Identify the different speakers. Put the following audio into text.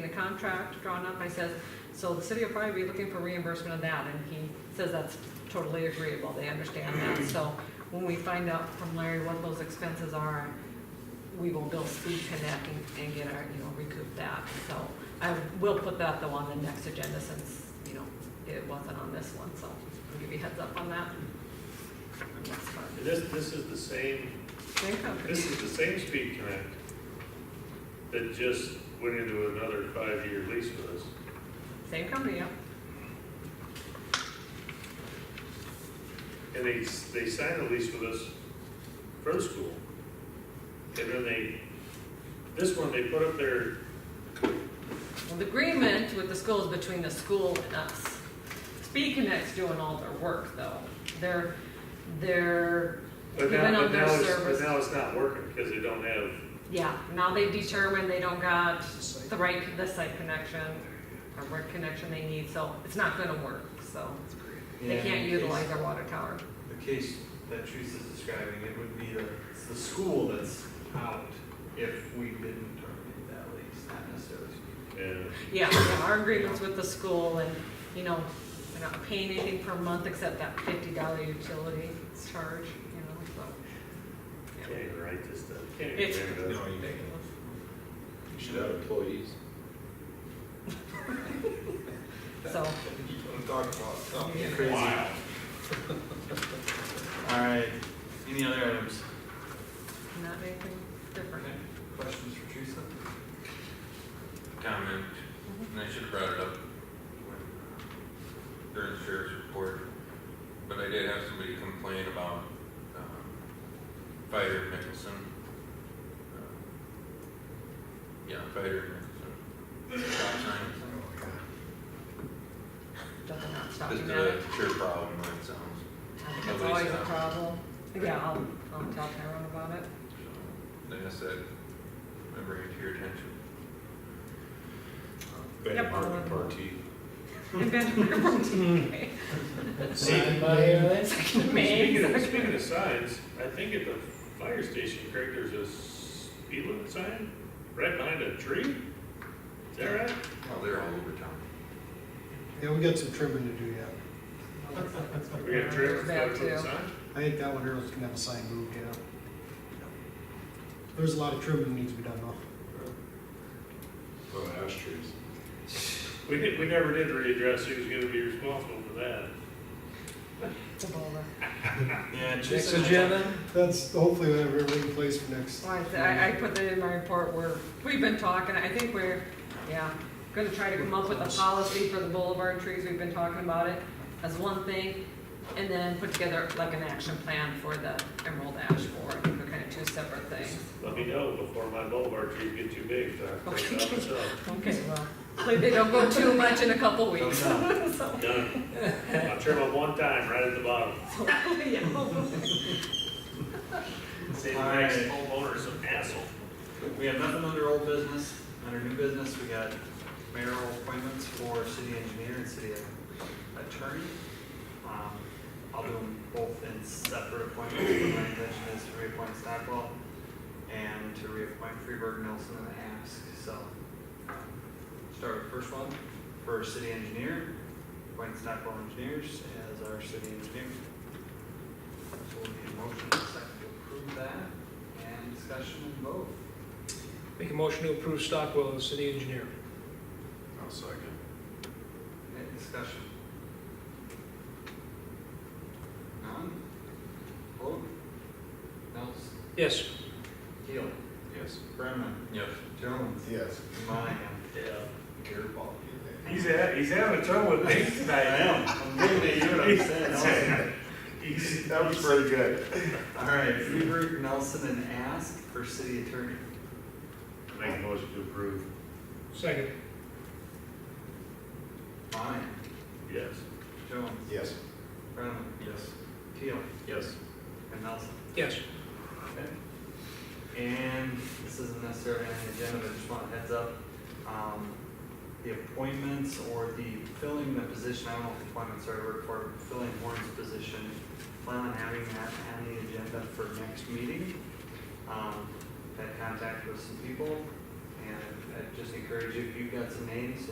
Speaker 1: in the contract drawn up, I says, so the city will probably be looking for reimbursement of that, and he says that's totally agreeable, they understand that, so when we find out from Larry what those expenses are, we will bill Speed Connect and, and get our, you know, recoup that, so I will put that though on the next agenda since, you know, it wasn't on this one, so I'll give you a heads up on that. And that's fine.
Speaker 2: This, this is the same,
Speaker 1: Same company.
Speaker 2: this is the same Speed Connect that just went into another five-year lease with us.
Speaker 1: Same company, yeah.
Speaker 2: And they, they signed a lease with us for school. And then they, this one, they put up their,
Speaker 1: Well, the agreement with the school is between the school and us. Speed Connect's doing all their work, though. They're, they're
Speaker 2: but
Speaker 1: Even
Speaker 2: now,
Speaker 1: on
Speaker 2: but
Speaker 1: their
Speaker 2: now it's,
Speaker 1: service.
Speaker 2: but now it's not working because they don't have,
Speaker 1: Yeah, now they've determined they don't got the right, the site connection, or what connection they need, so it's not gonna work, so. They
Speaker 3: Yeah,
Speaker 1: can't
Speaker 3: in the
Speaker 1: utilize their water tower.
Speaker 3: case- The case that Teresa is describing, it would be the, it's the school that's out if we didn't terminate that lease, not necessarily.
Speaker 2: and
Speaker 1: Yeah, yeah, our agreement's with the school and, you know, we're not paying anything per month except that fifty dollar utility charge, you know, so.
Speaker 2: can't
Speaker 1: yeah.
Speaker 2: even write this stuff. Can't even
Speaker 1: It's-
Speaker 2: remember that.
Speaker 4: you
Speaker 1: Ridiculous.
Speaker 4: You should have employees.
Speaker 1: So,
Speaker 4: I'm talking about.
Speaker 1: Yeah.
Speaker 3: Crazy. All right, any other items?
Speaker 1: not anything different.
Speaker 3: Questions for Teresa?
Speaker 5: comment, and I should have brought it up when, during the sheriff's report, but I did have somebody complain about, um, fire in Mickelson. Um, Yeah, fire in Mickelson. Stop sign.
Speaker 1: Doesn't not stop
Speaker 5: This
Speaker 1: you
Speaker 5: is
Speaker 1: now.
Speaker 5: a sure problem, when it sounds.
Speaker 1: I think It's
Speaker 5: nobody's
Speaker 1: always a
Speaker 2: uh,
Speaker 5: stopped.
Speaker 1: problem. Yeah, I'll, I'll tell Tyrone about it.
Speaker 5: So, Like I said, I bring it to your attention.
Speaker 1: Yep.
Speaker 4: Party, party.
Speaker 1: And Benjamin Bronte.
Speaker 2: Speaking
Speaker 1: Second maid,
Speaker 2: of,
Speaker 1: second-
Speaker 2: speaking of signs, I think at the fire station, Craig, there's a speed limit sign right behind a tree? Is that right?
Speaker 5: Well, they're all over town.
Speaker 6: Yeah, we got some trimming to do yet.
Speaker 2: We got a tree
Speaker 1: There's that
Speaker 2: with a
Speaker 1: too.
Speaker 2: sign?
Speaker 6: I think that one here was gonna have a sign moved, yeah. There's a lot of trimming needs to be done though.
Speaker 4: Oh, ash trees.
Speaker 2: We did, we never did readdress who's gonna be responsible for that.
Speaker 1: It's a bowler.
Speaker 3: Yeah,
Speaker 4: Next
Speaker 3: Teresa. and I-
Speaker 4: agenda?
Speaker 6: That's hopefully we have everything in place for next.
Speaker 1: Well, I said- I, I put that in my report, we're, we've been talking, I think we're, yeah, gonna try to come up with a policy for the boulevard trees, we've been talking about it as one thing, and then put together like an action plan for the Emerald Ash Board, they're kind of two separate things.
Speaker 2: Let me know before my boulevard trees get too big, so I can clean it up myself.
Speaker 1: Okay, well, uh, hopefully they don't go too much in a couple weeks,
Speaker 3: Thumbs
Speaker 1: so.
Speaker 2: Done. I'll trim them one time, right at the bottom.
Speaker 1: So, yeah.
Speaker 2: Save the
Speaker 3: All
Speaker 2: next
Speaker 3: right.
Speaker 2: homeowner some hassle.
Speaker 3: We have nothing under old business, under new business, we got mayoral appointments for city engineer and city attorney. Um, I'll do them both in separate appointments, but my intention is to reappoint Stockwell and to reappoint Freeburg, Nelson, and Ask, so. um, Start with the first one, for city engineer, appoint Stockwell Engineers as our city engineer. So we'll need a motion, and a second to approve that, and discussion and vote.
Speaker 7: Make a motion to approve Stockwell as city engineer.
Speaker 4: I'll second.
Speaker 3: Any discussion? None? Vote? Nels?
Speaker 7: Yes.
Speaker 3: Keel?
Speaker 4: Yes.
Speaker 3: Brennan?
Speaker 5: Yes.
Speaker 3: Jones?
Speaker 4: Yes.
Speaker 3: Monahan?
Speaker 2: Yeah.
Speaker 3: Garibaldi?
Speaker 2: He's, ha- he's having trouble with me
Speaker 3: I
Speaker 2: tonight.
Speaker 3: am, I'm looking at you and I'm saying Nelson.
Speaker 2: He's-
Speaker 4: That was pretty good.
Speaker 3: All right, Freeburg, Nelson, and Ask for city attorney.
Speaker 2: Make a motion to approve.
Speaker 7: Second.
Speaker 3: Monahan?
Speaker 2: Yes.
Speaker 3: Jones?
Speaker 4: Yes.
Speaker 3: Brennan?
Speaker 5: Yes.
Speaker 3: Keel?
Speaker 2: Yes.
Speaker 3: And Nelson?
Speaker 7: Yes.
Speaker 3: Okay. And this isn't necessarily on the agenda, but I just want a heads up. Um, The appointments or the filling the position, I don't know if appointments are the word for it, filling Warren's position, plan on having that on the agenda for next meeting. Um, Had contact with some people, and I I just encourage you, if you've got some names,